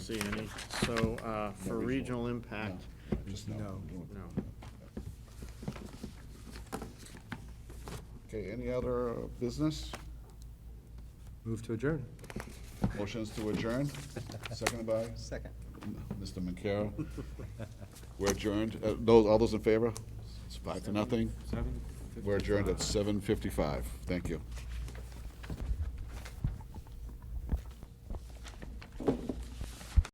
see any. So uh, for regional impact, Just No. no. Okay, any other business? Move to adjourn. Motion's to adjourn, seconded by Second. Mr. Mancara. We're adjourned. Uh, Those, all those in favor? It's five to nothing. We're adjourned at seven fifty-five. Thank you.